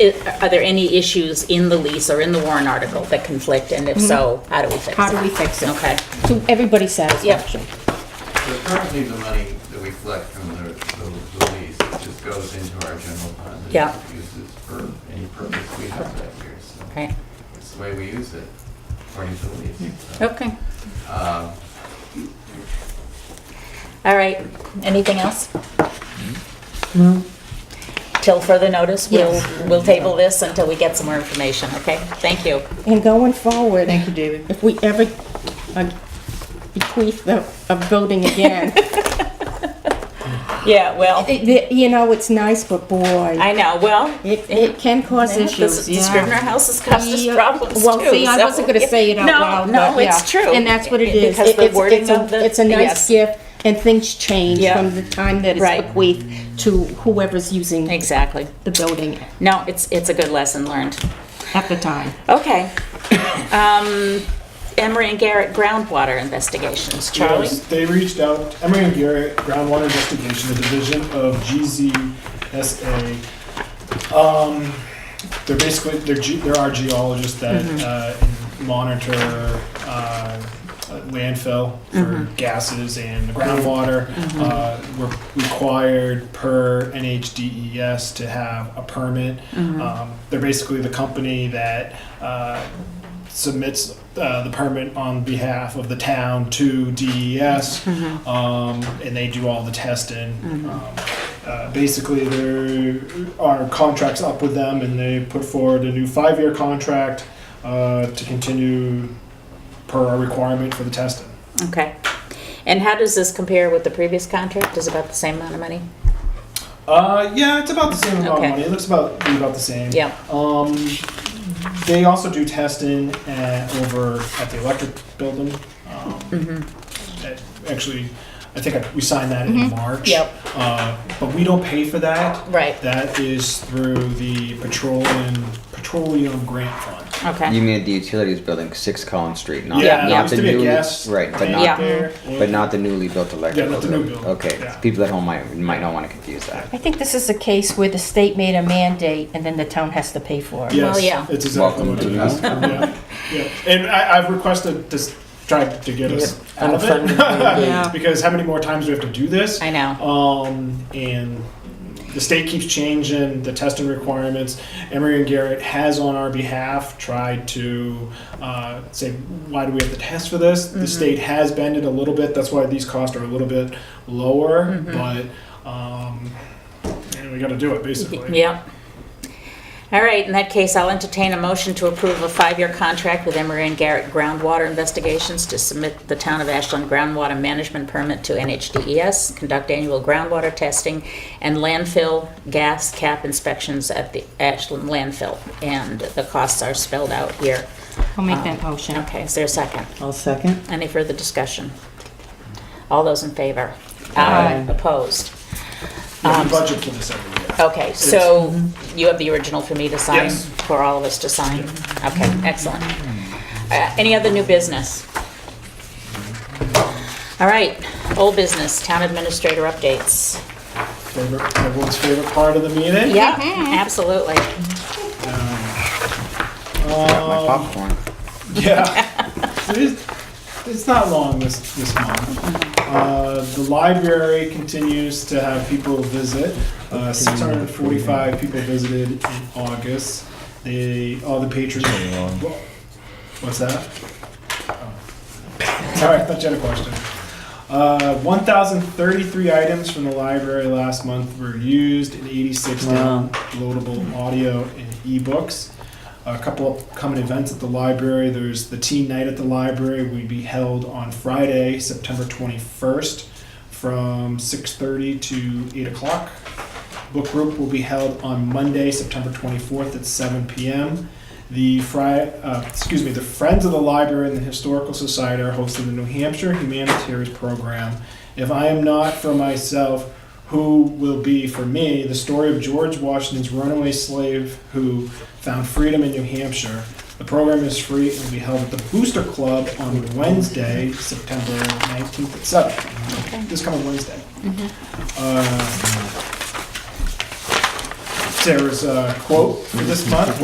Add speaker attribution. Speaker 1: Are there any issues in the lease or in the warrant article that conflict, and if so, how do we fix it?
Speaker 2: Mm-hmm. How do we fix it?
Speaker 1: Okay,
Speaker 2: To everybody's satisfaction.
Speaker 3: So currently, the money that we collect from the, the- the lease just goes into our general fund. and
Speaker 1: Yeah.
Speaker 3: Uses for any purpose we have that year, so
Speaker 1: okay,
Speaker 3: it's the way we use it, according to the lease. so,
Speaker 1: okay.
Speaker 3: um,
Speaker 1: All right, anything else? Till further notice, we'll, we'll table this until we get some more information, okay? Thank you.
Speaker 2: And going forward,
Speaker 4: Thank you, David.
Speaker 2: if we ever uh, bequeath the, a building again,
Speaker 1: Yeah, well,
Speaker 2: it- it- you know, it's nice, but boy,
Speaker 1: I know, well.
Speaker 2: it, it can cause
Speaker 1: This
Speaker 2: issues,
Speaker 1: is
Speaker 2: yeah.
Speaker 1: Scrivener House has caused us
Speaker 2: Yeah.
Speaker 1: problems too.
Speaker 2: Well, see, I
Speaker 1: so-
Speaker 2: wasn't gonna say it out
Speaker 1: No,
Speaker 2: loud,
Speaker 1: No,
Speaker 2: but
Speaker 1: it's
Speaker 2: yeah.
Speaker 1: true.
Speaker 2: And that's what it is.
Speaker 1: Because
Speaker 2: It-
Speaker 1: the
Speaker 2: it's-
Speaker 1: wording
Speaker 2: it's a-
Speaker 1: of the.
Speaker 2: It's a
Speaker 1: yes.
Speaker 2: nice gift, and things change
Speaker 1: Yeah.
Speaker 2: from the time that
Speaker 1: Right.
Speaker 2: it's bequeathed to whoever's using
Speaker 1: Exactly.
Speaker 2: the building
Speaker 1: No, it's, it's a good lesson learned.
Speaker 2: at the time.
Speaker 1: Okay. Um, Emery and Garrett groundwater investigations. Charlie?
Speaker 5: Yes, They reached out, Emery and Garrett, Groundwater Investigation, the division of GZSA. Um, they're basically, they're, ge- there are geologists that, uh, monitor, uh, landfill for gases and the groundwater. Uh, we're required per NHDES E to have a permit. Um, they're basically the company that, uh, submits uh, the permit on behalf of the town to DES, um, and they do all the testing. Um, uh, basically, there are contracts up with them, and they put forward a new five-year contract uh, to continue per our requirement for the testing.
Speaker 1: Okay. And how does this compare with the previous contract? Is it about the same amount of money?
Speaker 5: Uh, yeah, it's about the same amount
Speaker 1: Okay.
Speaker 5: of money. It looks about be about the same.
Speaker 1: Yeah.
Speaker 5: Um, they also do testing at, over at the electric building. Um,
Speaker 1: Mm-hmm.
Speaker 5: that- actually, I think I, we signed that in March.
Speaker 1: Yep.
Speaker 5: Uh, but we don't pay for that.
Speaker 1: Right.
Speaker 5: That is through the petroleum petroleum grant fund.
Speaker 1: Okay.
Speaker 6: You mean at the utilities building, Six Collins Street, not,
Speaker 5: yeah,
Speaker 6: not
Speaker 5: yeah.
Speaker 6: the
Speaker 5: to be a
Speaker 6: newly
Speaker 5: gas
Speaker 6: right, but
Speaker 5: plant
Speaker 6: not
Speaker 1: Yeah.
Speaker 5: there.
Speaker 6: but not the newly built electrical.
Speaker 5: not the new
Speaker 6: building.
Speaker 5: building.
Speaker 6: Okay,
Speaker 5: Yeah.
Speaker 6: people at home might might not want to confuse that.
Speaker 4: I think this is a case where the state made a mandate and then the town has to pay for it.
Speaker 5: Yes,
Speaker 1: Well, yeah.
Speaker 5: It's exactly
Speaker 6: Welcome
Speaker 5: what
Speaker 6: to
Speaker 5: it
Speaker 6: the
Speaker 5: is. yeah. Yeah. And I, I've requested this try to get us out of it
Speaker 2: Yeah.
Speaker 5: because how many more times do we have to do this?
Speaker 1: I know.
Speaker 5: Um, and the state keeps changing the testing requirements. Emory and Garrett has, on our behalf, tried to uh, say, why do we have to test for this?
Speaker 1: Mm-hmm.
Speaker 5: The state has bended a little bit. That's why these costs are a little bit lower,
Speaker 1: Mm-hmm.
Speaker 5: but um, and we got to do it basically.
Speaker 1: Yep. All right, in that case, I'll entertain a motion to approve a five-year contract with Emery and Garrett Groundwater Investigations to submit the Town of Ashland groundwater management permit to NHDES, E conduct annual groundwater testing, and landfill gas cap inspections at the Ashland landfill. And the costs are spelled out here. Um,
Speaker 2: I'll make that motion.
Speaker 1: Okay, is there a second?
Speaker 7: I'll second.
Speaker 1: Any further discussion? All those in favor?
Speaker 6: Aye.
Speaker 1: Opposed?
Speaker 5: Yeah, we
Speaker 1: Um,
Speaker 5: budget for this every year.
Speaker 1: Okay, so you have the original for me to sign?
Speaker 5: Yes.
Speaker 1: For all of us to sign? Okay, excellent. Uh, Any other new business? All right, old business, town administrator updates.
Speaker 5: Favorite, everyone's favorite part of the meeting.
Speaker 1: Yeah, absolutely.
Speaker 6: Got
Speaker 5: um,
Speaker 6: my popcorn.
Speaker 5: Yeah. It is- It's not long this, this month. Uh, The library continues to have people visit. Uh, 645 people visited in August. They, all the patrons. What's that? Oh. Sorry, I thought you had a question. Uh, 1,033 items from the library last month were used and 86
Speaker 7: Wow.
Speaker 5: downloadable audio and ebooks. A couple upcoming events at the library. There's the teen night at the library. We'd be held on Friday, September 21st, from 6:30 to 8 o'clock. Book group will be held on Monday, September 24th at 7 p.m. The Fri- uh, excuse me, the Friends of the Library and the Historical Society are hosting the New Hampshire Humanitarians Program. If I am not for myself, who will be for me the story of George Washington's runaway slave who found freedom in New Hampshire? The program is free and will be held at the Booster Club on Wednesday, September 19th at 7. This coming Wednesday. Uh, Sarah's uh, quote for this month